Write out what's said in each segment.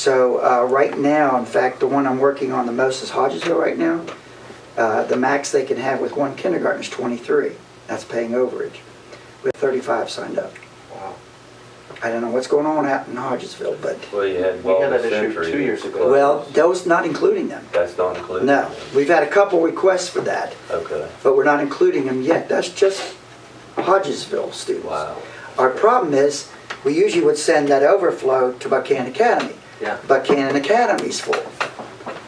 So uh, right now, in fact, the one I'm working on the most is Hodgesville right now. Uh, The max they can have with one kindergarten is 23. That's paying overage. We have 35 signed up. Wow. I don't know what's going on out in Hodgesville, but, Well, you had We had Wellness that issue Century. two years that's ago. closed. well, those not including them. That's not included? No, we've had a couple requests for that, Okay, but we're not including them yet. That's just Hodgesville students. wow. Our problem is, we usually would send that overflow to Buchanan Academy. Yeah. Buchanan Academy's full.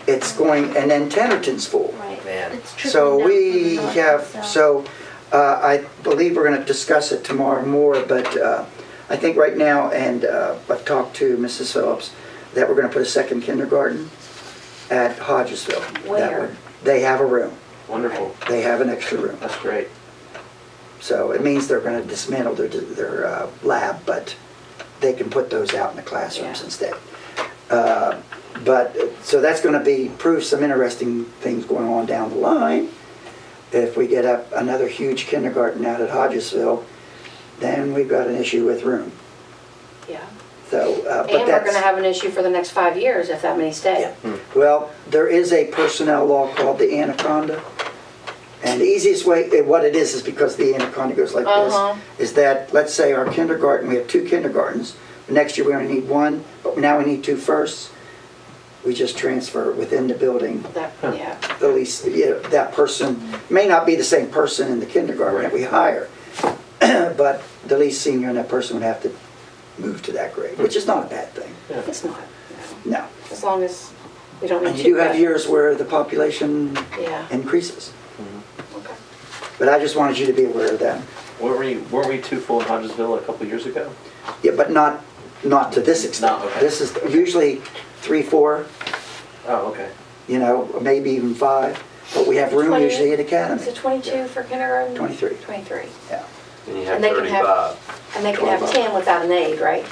It's going, and then Tenerton's full. Right. Man. It's trickling down So from we the north have, to the south. so uh, I believe we're going to discuss it tomorrow more, but uh, I think right now, and uh, I've talked to Mrs. Phillips, that we're going to put a second kindergarten at Hodgesville. That Where? would- They have a room. Wonderful. They have an extra room. That's great. So it means they're going to dismantle their, their uh, lab, but they can put those out in the classrooms Yeah. instead. Uh, But, uh, so that's going to be, prove some interesting things going on down the line. If we get up another huge kindergarten out at Hodgesville, then we've got an issue with room. Yeah. So, uh, but And we're that's. gonna have an issue for the next five years if that many stay. Well, there is a personnel law called the anaconda. And the easiest way, eh, what it is, is because the anaconda goes like Uh-huh. this, is that, let's say our kindergarten, we have two kindergartens. Next year, we only need one, but now we need two firsts. We just transfer within the building, That, yeah. the least, you know, that person, may not be the same person in the kindergarten that we hire, but the least senior in that person would have to move to that grade, which is not a bad thing, Yeah. It's not, no. as long as we don't need And to. you do have but- years where the population Yeah. increases. Okay. But I just wanted you to be aware of that. Weren't we, weren't we too full in Hodgesville a couple years ago? Yeah, but not, not to this extent. No, okay. This is usually three, four, Oh, okay. you know, maybe even five, but we have room 20 usually at Is it academy. twenty-two for kindergarten? 23. Twenty-three. Yeah, And you have And they can have- 35. And they can have ten without an aide, right?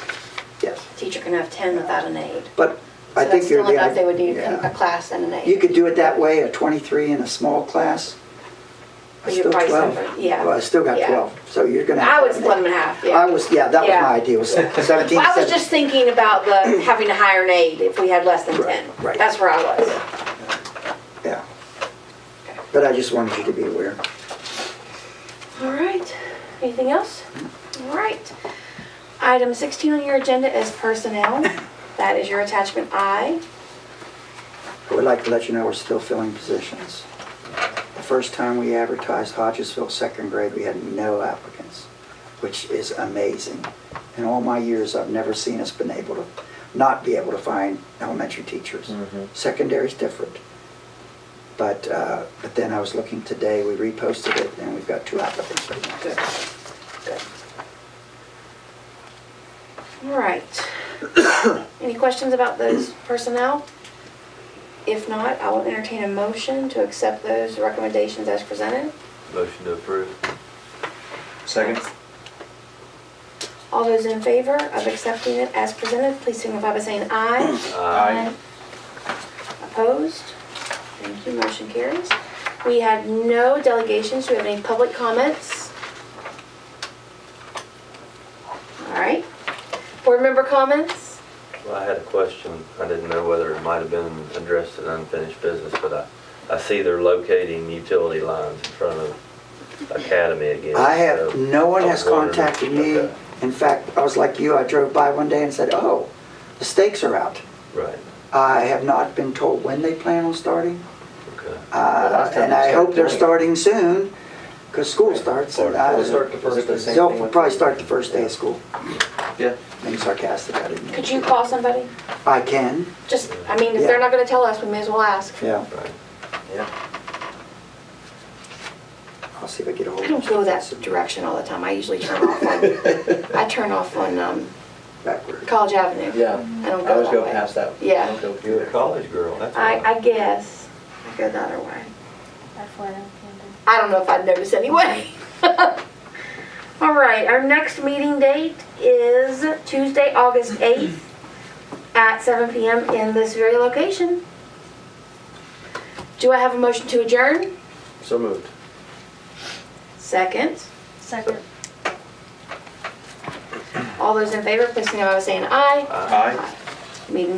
yes. Teacher can have ten without an aide. But I think you're. So that's still enough, they would need yeah. a a class and an aide. You could do it that way, a 23 in a small class. But Still you're probably 12. separate, yeah. Well, I still got Yeah. 12, so you're gonna. I would split them in half, yeah. I was, yeah, that was Yeah. my idea, was 17, Well, I was just thinking about the, having to hire an aide if we had less than Right, ten. right. That's where I was. Yeah. But I just wanted you to be aware. All right, anything else? All right. Item 16 on your agenda is personnel. That is your attachment I. I would like to let you know we're still filling positions. The first time we advertised Hodgesville second grade, we had no applicants, which is amazing. In all my years, I've never seen us been able to, not be able to find elementary teachers. Mm-hmm. Secondary's different. But, uh, but then I was looking today, we reposted it, and we've got two applicants right now. Good. Good. All right. Any questions about those personnel? If not, I will entertain a motion to accept those recommendations as presented. Motion to approve. Second? All those in favor of accepting it as presented, please signify by saying aye. Aye. Opposed? Thank you, motion carries. We had no delegations, do we have any public comments? All right, board member comments? Well, I had a question. I didn't know whether it might have been addressed in unfinished business, but I, I see they're locating utility lines in front of Academy again. I have, so no one I was has wondering- contacted me. Okay, In fact, I was like you, I drove by one day and said, oh, the stakes are out. Right, I have not been told when they plan on starting, okay. uh, last time and they I hope they're starting started soon, because school starts. and I- We'll start the first day. Same They'll thing with- probably start the first day of school. Yeah. Being sarcastic, I didn't. mean Could to. you call somebody? I can, Just, I mean, if they're not gonna tell us, we may as well ask. yeah. Right. Yeah. I'll see if I get a hold I of them. don't go that direction all the time, I usually turn off on, I turn off on, um, Backward. College Avenue. Yeah. I don't go that way. I always go past that. Yeah. I don't go You're a through college girl, that's why. I, I guess, I go the other way. That's what I'm thinking. I don't know if I'd notice anyway. All right, our next meeting date is Tuesday, August 8th at 7 PM in this very location. Do I have a motion to adjourn? it. So moved. Second. Second. All those in favor, please signify by saying aye. I- Aye. Meeting is